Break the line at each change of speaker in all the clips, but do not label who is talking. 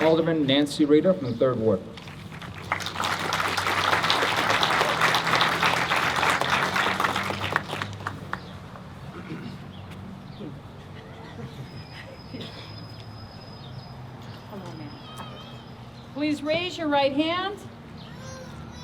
Alderman Nancy Reader from the Third Ward.
Hello, ma'am. Please raise your right hand.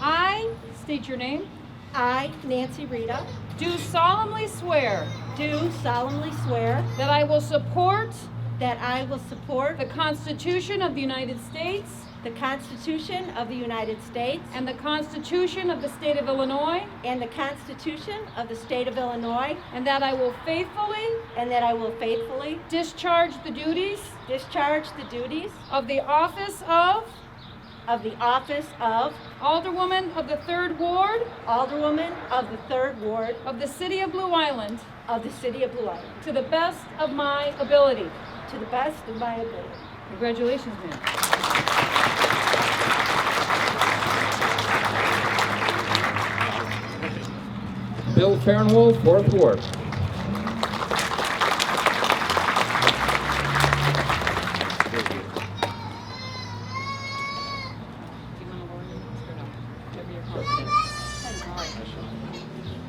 I state your name.
I, Nancy Rita,
Do solemnly swear
do solemnly swear
that I will support
that I will support
the Constitution of the United States
the Constitution of the United States
and the Constitution of the State of Illinois,
and the Constitution of the State of Illinois,
and that I will faithfully
and that I will faithfully
discharge the duties
discharge the duties
of the office of
of the office of
Alderwoman of the Third Ward
Alderwoman of the Third Ward
of the City of Blue Island
of the City of Blue Island,
to the best of my ability.
to the best of my ability.
Congratulations, ma'am.
Bill Farnwell, Fourth Ward.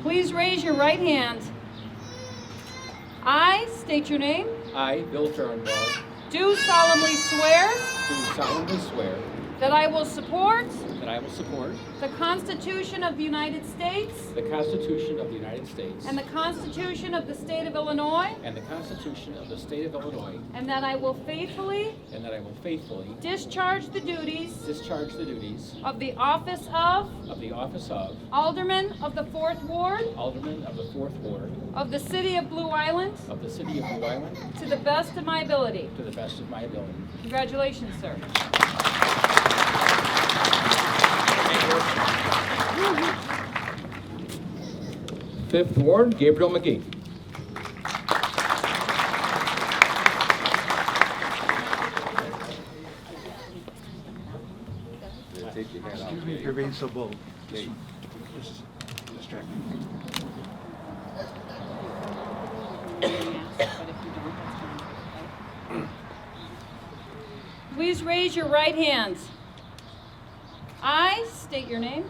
Please raise your right hand. I state your name.
I, Bill Farnwell,
Do solemnly swear
do solemnly swear
that I will support
that I will support
the Constitution of the United States
the Constitution of the United States
and the Constitution of the State of Illinois,
and the Constitution of the State of Illinois,
and that I will faithfully
and that I will faithfully
discharge the duties
discharge the duties
of the office of
of the office of
Alderman of the Fourth Ward
Alderman of the Fourth Ward
of the City of Blue Island
of the City of Blue Island
to the best of my ability.
to the best of my ability.
Congratulations, sir.
Fifth Ward, Gabriel McGee.
Excuse me for being so bold.
Please raise your right hand. I state your name.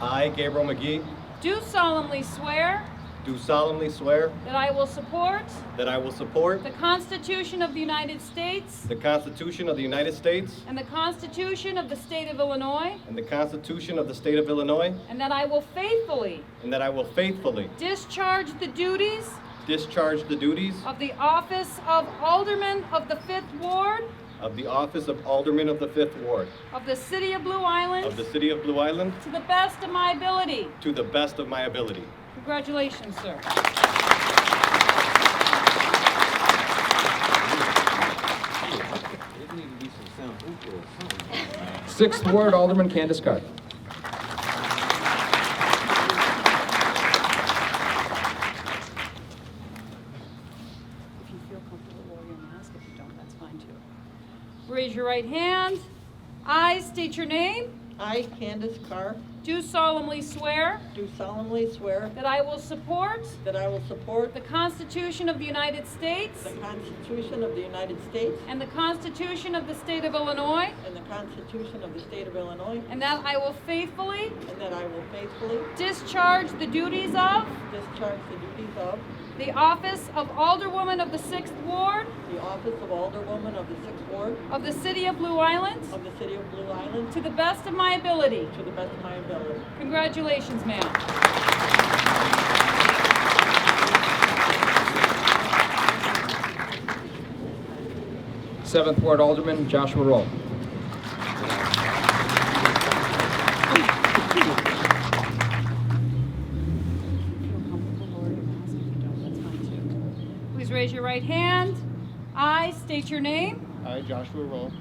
I, Gabriel McGee,
Do solemnly swear
do solemnly swear
that I will support
that I will support
the Constitution of the United States
the Constitution of the United States
and the Constitution of the State of Illinois,
and the Constitution of the State of Illinois,
and that I will faithfully
and that I will faithfully
discharge the duties
discharge the duties
of the office of Alderman of the Fifth Ward
of the office of Alderman of the Fifth Ward
of the City of Blue Island
of the City of Blue Island
to the best of my ability.
to the best of my ability.
Congratulations, sir.
Sixth Ward, Alderman Candace Carr.
If you feel comfortable wearing your mask, if you don't, that's fine too. Raise your right hand. I state your name.
I, Candace Carr,
Do solemnly swear
do solemnly swear
that I will support
that I will support
the Constitution of the United States
the Constitution of the United States
and the Constitution of the State of Illinois,
and the Constitution of the State of Illinois,
and that I will faithfully
and that I will faithfully
discharge the duties of
discharge the duties of
the office of Alderwoman of the Sixth Ward
the office of Alderwoman of the Sixth Ward
of the City of Blue Island
of the City of Blue Island
to the best of my ability.
to the best of my ability.
Congratulations, ma'am.
Seventh Ward, Alderman Joshua Roll.
Please raise your right hand. I state your name.
I, Joshua Roll,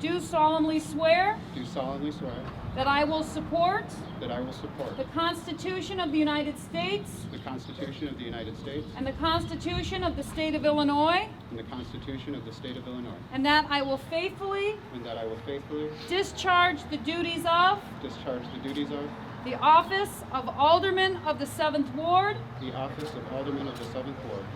Do solemnly swear
do solemnly swear
that I will support
that I will support
the Constitution of the United States
the Constitution of the United States
and the Constitution of the State of Illinois,
and the Constitution of the State of Illinois,
and that I will faithfully
and that I will faithfully
discharge the duties of
discharge the duties of
the office of Alderman of the Seventh Ward
the office of Alderman of the Seventh Ward